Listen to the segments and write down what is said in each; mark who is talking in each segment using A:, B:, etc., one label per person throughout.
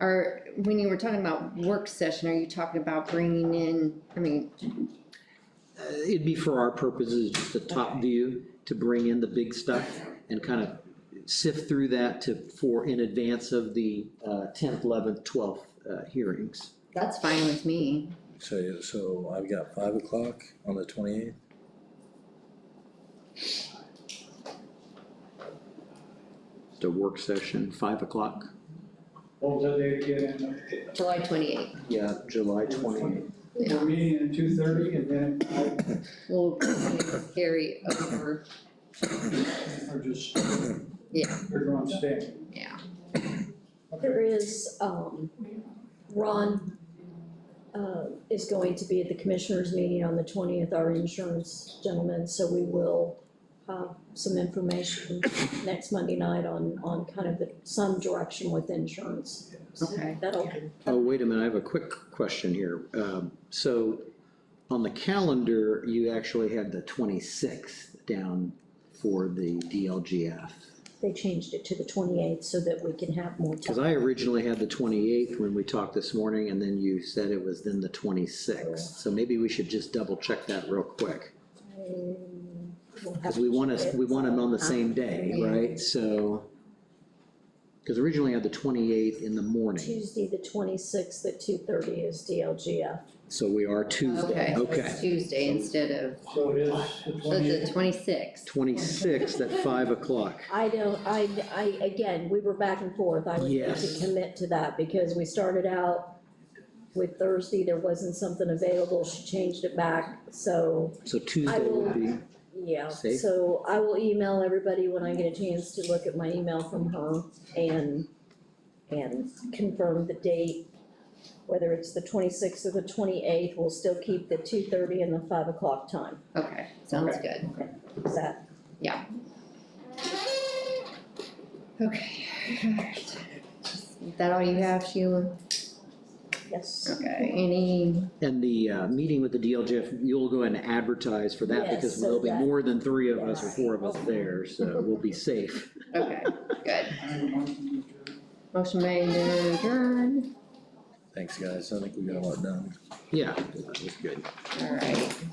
A: are, when you were talking about work session, are you talking about bringing in, I mean,
B: Uh, It'd be for our purposes, just a top view to bring in the big stuff and kind of sift through that to, for, in advance of the uh, tenth, eleventh, twelfth uh, hearings.
A: that's fine with me.
C: So, so I've got five o'clock on the twenty-eighth,
B: The work session, five o'clock.
D: What was that date again?
A: July twenty-eighth,
B: Yeah, July twenty.
D: 28th. We're meeting at two thirty and then I,
A: we'll carry over,
D: or just,
A: yeah,
D: we're going to stay.
A: yeah.
E: There is, um, Ron, uh, is going to be at the commissioners meeting on the twentieth, our insurance gentleman, so we will have some information next Monday night on, on kind of the, some direction with insurance. So
A: Okay.
E: That'll,
B: Oh, wait a minute, I have a quick question here. Um, So on the calendar, you actually had the twenty-sixth down for the DLGF.
E: they changed it to the twenty-eighth so that we can have more
B: Because
E: time.
B: I originally had the twenty-eighth when we talked this morning, and then you said it was then the twenty-sixth. So maybe we should just double check that real quick, because we want us, we want them on the same day, right? So, because originally I had the twenty-eighth in the morning,
E: Tuesday, the twenty-sixth at two thirty is DLGF.
B: so we are
A: Okay,
B: Tuesday,
A: so it's
B: okay.
A: Tuesday instead of,
D: So it is the
A: so it's
D: twenty,
A: the twenty-sixth,
B: Twenty-sixth at five o'clock.
E: I don't, I, I, again, we were back and forth, I was going
B: Yes.
E: to commit to that, because we started out with Thursday, there wasn't something available, she changed it back, so,
B: So Tuesday would be,
E: yeah.
B: Safe.
E: So I will email everybody when I get a chance to look at my email from her and, and confirm the date. Whether it's the twenty-sixth or the twenty-eighth, we'll still keep the two-thirty and the five o'clock time,
A: okay, sounds good,
E: is that,
A: okay. alright. Is that all you have, Sheila?
E: yes?
A: Okay, any,
B: and the uh, meeting with the DLGF, you'll go and advertise for that,
E: Yes,
B: because
E: so
B: there'll be
E: that-
B: more than three of us or
E: Yes.
B: four of us there, so we'll be safe.
A: okay, good.
D: I have a motion to adjourn.
A: Motion made and adjourned,
C: thanks guys, I think we got a lot done.
B: Yeah, that was good.
A: all right.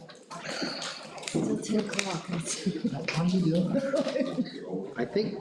A: Till ten o'clock, I see.
C: How you doing?
B: I think